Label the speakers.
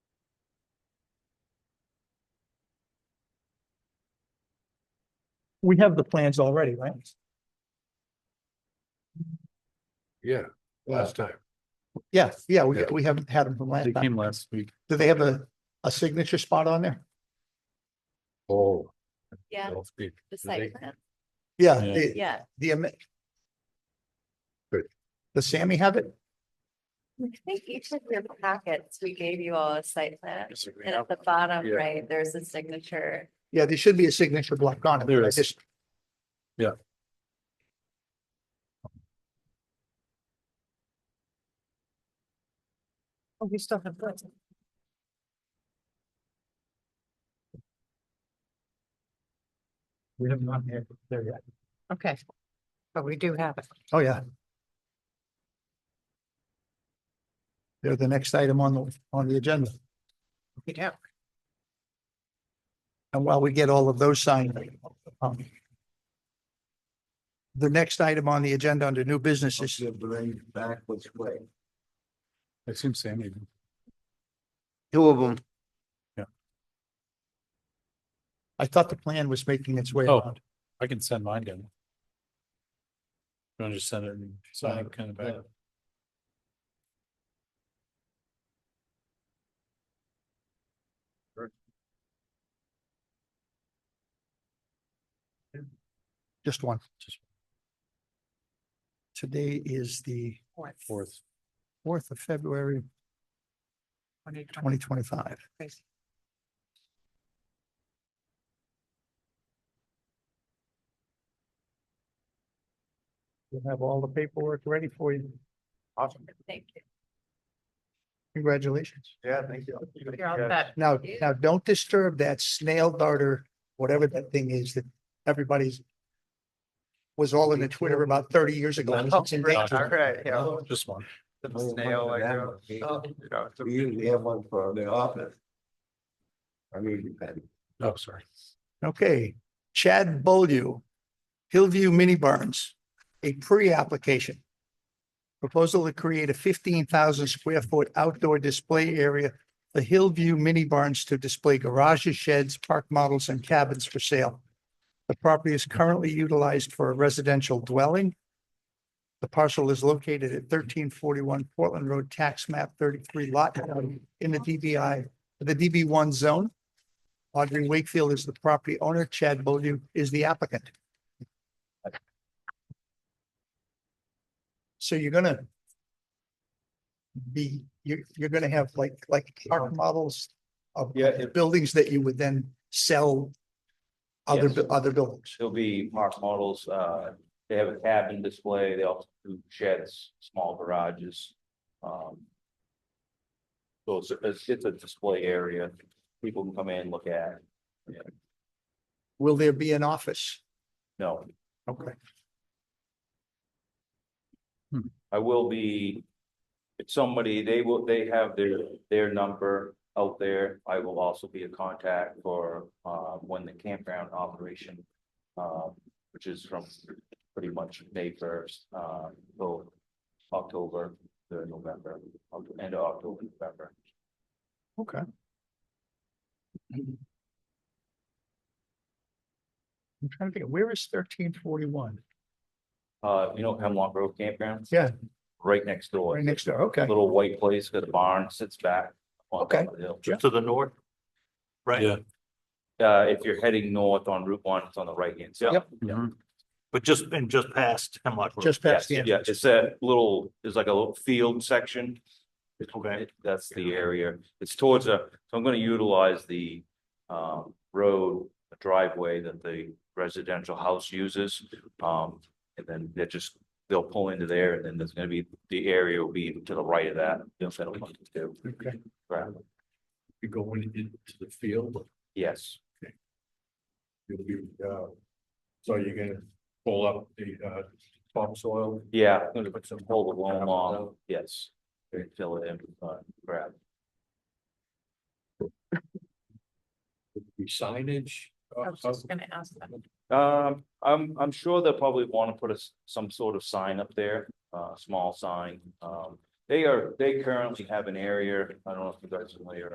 Speaker 1: We have the plans already, right?
Speaker 2: Yeah, last time.
Speaker 1: Yeah, yeah, we,
Speaker 2: Yeah.
Speaker 1: we haven't had them from last
Speaker 3: They
Speaker 1: time.
Speaker 3: came last week.
Speaker 1: Do they have a, a signature spot on there?
Speaker 2: Oh.
Speaker 4: Yeah,
Speaker 2: don't speak.
Speaker 4: the
Speaker 2: they-
Speaker 4: site plan,
Speaker 1: Yeah,
Speaker 3: Yeah.
Speaker 1: the,
Speaker 4: yeah.
Speaker 1: the. ama-
Speaker 2: Good.
Speaker 1: Does Sammy have it?
Speaker 4: I think each of your packets, we gave you all a site plan. And at the bottom,
Speaker 2: Yeah.
Speaker 4: right, there's a signature.
Speaker 1: Yeah, there should be a signature block on it.
Speaker 3: There
Speaker 1: I
Speaker 3: is.
Speaker 1: just-
Speaker 3: Yeah.
Speaker 1: Oh, we still have that. We have not had there yet.
Speaker 5: Okay. But we do have it.
Speaker 1: Oh, yeah. They're the next item on the, on the agenda.
Speaker 5: We do.
Speaker 1: And while we get all of those signed. um, The next item on the agenda under new business is
Speaker 3: I assume Sammy. did.
Speaker 6: Two of them.
Speaker 1: I thought the plan was making its way
Speaker 3: Oh.
Speaker 1: around.
Speaker 3: I can send mine down. You want to just send it and sign it kind of back?
Speaker 1: Just one.
Speaker 3: Just-
Speaker 1: Today is the
Speaker 3: Fourth.
Speaker 1: fourth of February, twenty twenty-five. We'll have all the paperwork ready for you. Awesome.
Speaker 4: Thank you.
Speaker 1: Congratulations.
Speaker 2: Yeah, thank you.
Speaker 5: You're all set.
Speaker 1: Now,
Speaker 4: Yeah.
Speaker 1: now don't disturb that snail darter, whatever that thing is that everybody's was all in the Twitter about thirty years ago.
Speaker 6: Oh,
Speaker 1: It's in danger.
Speaker 3: Alright,
Speaker 6: yeah.
Speaker 3: Uh, Just one.
Speaker 6: Snail like. uh, oh, We usually have one for the office. I mean, depending.
Speaker 3: Oh, sorry.
Speaker 1: Okay, Chad Beaulieu, Hillview Mini Barns, a pre-application. Proposal to create a fifteen thousand square foot outdoor display area for Hillview Mini Barns to display garages, sheds, park models and cabins for sale. The property is currently utilized for a residential dwelling. The parcel is located at thirteen forty-one Portland Road, tax map thirty-three lot nine in the DBI, the DB one zone. Audrey Wakefield is the property owner. Chad Beaulieu is the applicant. So you're gonna be, you're, you're gonna have like, like park models of
Speaker 7: Yeah, it-
Speaker 1: buildings that you would then sell other,
Speaker 7: Yes.
Speaker 1: bu- other buildings.
Speaker 7: There'll be park models, uh, they have a cabin display, they also do sheds, small garages. Um. So it's, it's, it's a display area, people can come in, look at,
Speaker 1: Will there be an office?
Speaker 7: no,
Speaker 1: Okay.
Speaker 7: I will be. It's somebody, they will, they have their, their number out there, I will also be a contact for, uh, when the campground operation. Um, which is from pretty much May first, uh, till October, the November, Oct- end of October, November.
Speaker 1: Okay. I'm trying to think, where is thirteen forty-one?
Speaker 7: Uh, you know Hemlock Grove Campground?
Speaker 1: Yeah.
Speaker 7: Right next door,
Speaker 1: Right next door, okay.
Speaker 7: little white place, got a barn, sits back. on top
Speaker 1: Okay.
Speaker 7: of the hill.
Speaker 2: To the north. Right.
Speaker 3: Yeah.
Speaker 7: Uh, if you're heading north on Route one, it's on the right hand side.
Speaker 1: Yep.
Speaker 3: Mhm.
Speaker 2: But just, and just past Hemlock. Road.
Speaker 1: Just
Speaker 7: Yes,
Speaker 1: past the end.
Speaker 7: yeah, it's a little, it's like a little field section.
Speaker 2: Okay.
Speaker 7: It- That's the area. It's towards a, so I'm gonna utilize the um road driveway that the residential house uses. Um, and then they're just, they'll pull into there and then there's gonna be, the area will be to the right of that. They'll settle on it too.
Speaker 1: Okay.
Speaker 7: Right,
Speaker 3: You go in- into the field.
Speaker 7: yes,
Speaker 3: you'll be, uh, So you're gonna pull up the uh topsoil.
Speaker 7: yeah, I'm gonna
Speaker 3: Put some
Speaker 7: hold the loam on, yes. Fill it in, with, uh, grab.
Speaker 3: Signage.
Speaker 5: I was just gonna ask them.
Speaker 7: Um, I'm, I'm sure they'll probably want to put a, s- some sort of sign up there, uh, a small sign. Um, they are, they currently have an area, I don't know if you guys are familiar